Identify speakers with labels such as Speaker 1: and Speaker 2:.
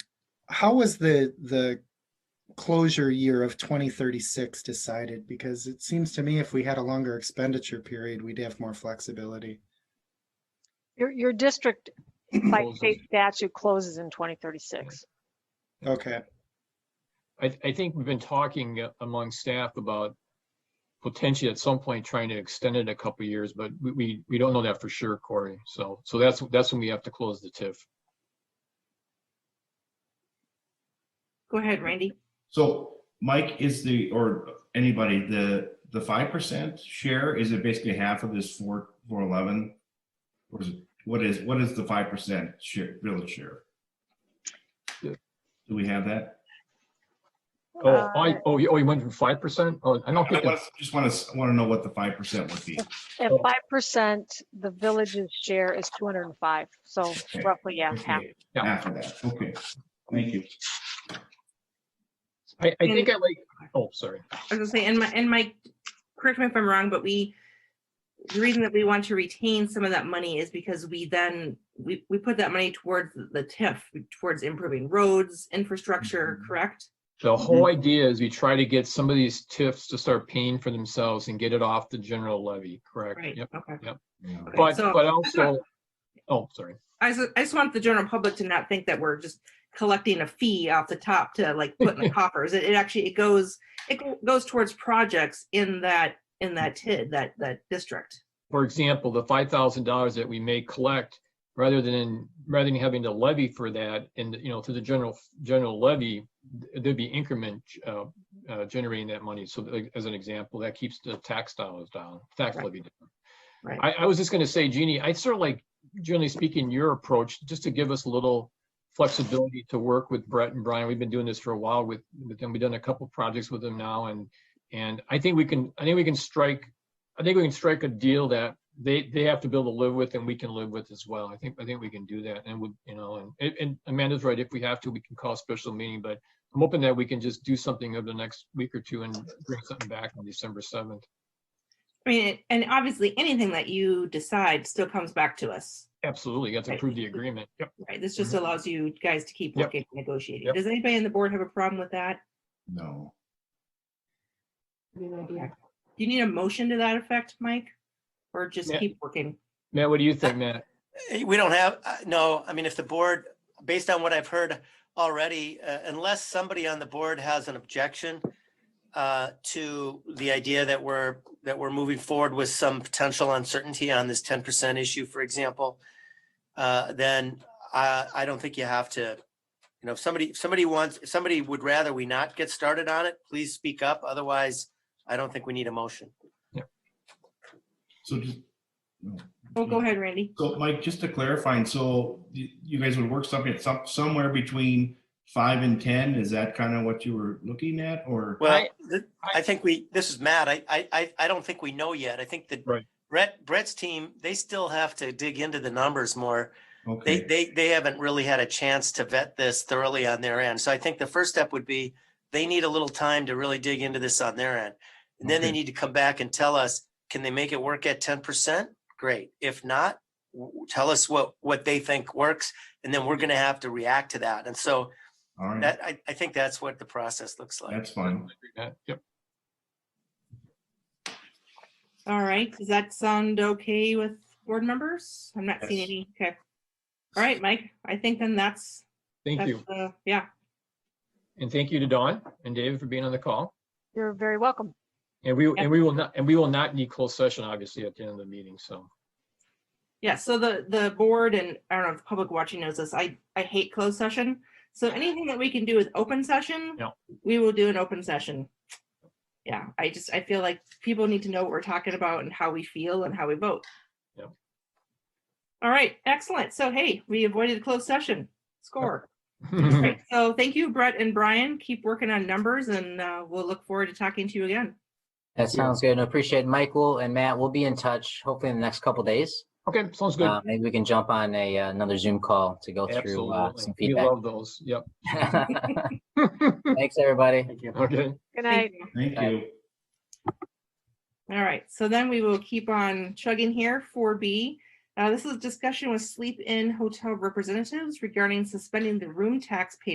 Speaker 1: how was the, the closure year of twenty thirty-six decided? Because it seems to me if we had a longer expenditure period, we'd have more flexibility.
Speaker 2: Your, your district by
Speaker 3: Closes.
Speaker 2: state statute closes in 2036.
Speaker 1: Okay,
Speaker 3: I, I think we've been talking uh, among staff about potentially at some point trying to extend it a couple of years, but we, we, we don't know that for sure, Corey. So, so that's, that's when we have to close the TIF.
Speaker 4: Go ahead, Randy.
Speaker 5: So Mike is the, or anybody, the, the five percent share, is it basically half of this four, four eleven? Or is it, what is, what is the five percent share, village share?
Speaker 3: Yeah.
Speaker 5: Do we have that?
Speaker 3: Oh,
Speaker 2: Uh,
Speaker 3: I, oh, you, oh, you went from five percent? Oh, I don't
Speaker 5: I
Speaker 3: think,
Speaker 5: want-
Speaker 3: that's-
Speaker 5: just want to, want to know what the five percent would be.
Speaker 2: At
Speaker 3: oh.
Speaker 2: 5%, the village's share is 205. So
Speaker 5: Okay.
Speaker 2: roughly, yeah, half.
Speaker 5: Okay,
Speaker 3: Yeah.
Speaker 5: Half of that, okay. Thank you.
Speaker 3: I, I think I like, oh, sorry.
Speaker 4: I was gonna say, and my, and Mike, correct me if I'm wrong, but we, the reason that we want to retain some of that money is because we then, we, we put that money towards the TIF, towards improving roads, infrastructure,
Speaker 3: Mm-hmm.
Speaker 4: correct?
Speaker 3: The whole
Speaker 4: Mm-hmm.
Speaker 3: idea is we try to get some of these TIFs to start paying for themselves and get it off the general levy, correct?
Speaker 4: Right,
Speaker 3: Yep.
Speaker 4: okay.
Speaker 5: Yeah.
Speaker 4: Okay,
Speaker 3: But,
Speaker 4: so-
Speaker 3: but also, oh, sorry.
Speaker 4: I just, I just want the general public to not think that we're just collecting a fee off the top to like put in the coffers. It, it actually, it goes, it go- goes towards projects in that, in that
Speaker 3: Mm-hmm.
Speaker 4: TID, that, that district.
Speaker 3: for example, the five thousand dollars that we may collect, rather than, rather than having to levy for that and, you know, through the general, general levy, th- there'd be increment uh, uh, generating that money. So like, as an example, that keeps the tax dollars down, tax
Speaker 4: Right.
Speaker 3: levy down.
Speaker 4: Right.
Speaker 3: I, I was just gonna say, Jeannie, I sort of like, generally speaking, your approach, just to give us a little flexibility to work with Brett and Brian. We've been doing this for a while with, with them. We've done a couple projects with them now and, and I think we can, I think we can strike I think we can strike a deal that they, they have to be able to live with and we can live with as well. I think, I think we can do that and would, you know, and- and, and Amanda's right. If we have to, we can call a special meeting, but I'm hoping that we can just do something over the next week or two and bring something back on December seventh.
Speaker 4: I mean, and obviously, anything that you decide still comes back to us.
Speaker 3: Absolutely. You have to approve the agreement. Yep.
Speaker 4: Right, this just
Speaker 3: Mhm.
Speaker 4: allows you guys to keep
Speaker 3: Yep.
Speaker 4: working, and negotiating.
Speaker 3: Yep.
Speaker 4: Does anybody on the board have a problem with that?
Speaker 5: No,
Speaker 4: Do you need a motion to that effect, Mike? Or just
Speaker 3: Yeah.
Speaker 4: keep working?
Speaker 3: Matt, what do you think, Matt?
Speaker 6: Eh, We don't have, uh, no, I mean, if the board, based on what I've heard already, uh, unless somebody on the board has an objection uh, to the idea that we're, that we're moving forward with some potential uncertainty on this ten percent issue, for example, uh, then I, I don't think you have to, you know, if somebody, if somebody wants, if somebody would rather we not get started on it, please speak up. Otherwise, I don't think we need a motion.
Speaker 5: so just. no.
Speaker 3: Mm-hmm.
Speaker 4: Oh, go ahead, Randy.
Speaker 5: So Mike, just to clarify, and so you, you guys would work something at some, somewhere between five and ten, is that kind of what you were looking at, or?
Speaker 6: Well,
Speaker 3: I-
Speaker 6: th-
Speaker 3: I-
Speaker 6: I think we, this is Matt. I, I, I, I don't think we know yet. I think that
Speaker 3: Right.
Speaker 6: Brett, Brett's team, they still have to dig into the numbers more. They,
Speaker 5: Okay,
Speaker 6: they, they haven't really had a chance to vet this thoroughly on their end. So I think the first step would be they need a little time to really dig into this on their end. And then they
Speaker 5: Okay.
Speaker 6: need to come back and tell us, can they make it work at ten percent? Great. If not, w- w- tell us what, what they think works. And then we're going to have to react to that. And so
Speaker 5: all right,
Speaker 6: that, I, I think that's what the process looks like.
Speaker 5: that's fine.
Speaker 3: Matt, Yep.
Speaker 4: All right, does that sound okay with board members? I'm not seeing
Speaker 5: Yes.
Speaker 4: any, okay. All right, Mike, I think then that's,
Speaker 3: Thank
Speaker 4: that's,
Speaker 3: you.
Speaker 4: uh, yeah,
Speaker 3: And thank you to Dawn and David for being on the call.
Speaker 2: You're very welcome.
Speaker 3: And we, and we will not, and we will not need closed session, obviously, at the end of the meeting. So.
Speaker 4: yeah, so the, the board and, I don't know if the public watching knows this, I, I hate closed session. So anything that we can do with open session,
Speaker 3: Yeah.
Speaker 4: we will do an open session. Yeah, I just, I feel like people need to know what we're talking about and how we feel and how we vote.
Speaker 3: Yeah.
Speaker 4: All right, excellent. So hey, we avoided a closed session. Score. Right, so thank you, Brett and Brian. Keep working on numbers and uh, we'll look forward to talking to you again.
Speaker 7: That sounds good. And appreciate it. Michael and Matt. We'll be in touch hopefully in the next couple days.
Speaker 3: Okay, sounds good.
Speaker 7: Uh, maybe we can jump on a uh, another Zoom call to go through uh,
Speaker 3: Absolutely.
Speaker 7: some
Speaker 3: We
Speaker 7: feedback.
Speaker 3: love those. Yep.
Speaker 7: Thanks, everybody.
Speaker 3: Okay.
Speaker 2: Good
Speaker 4: Thank
Speaker 2: night.
Speaker 4: you.
Speaker 5: Thank
Speaker 7: Bye.
Speaker 5: you.
Speaker 4: All right, so then we will keep on chugging here, four B. Uh, This is discussion with sleep in hotel representatives regarding suspending the room tax payment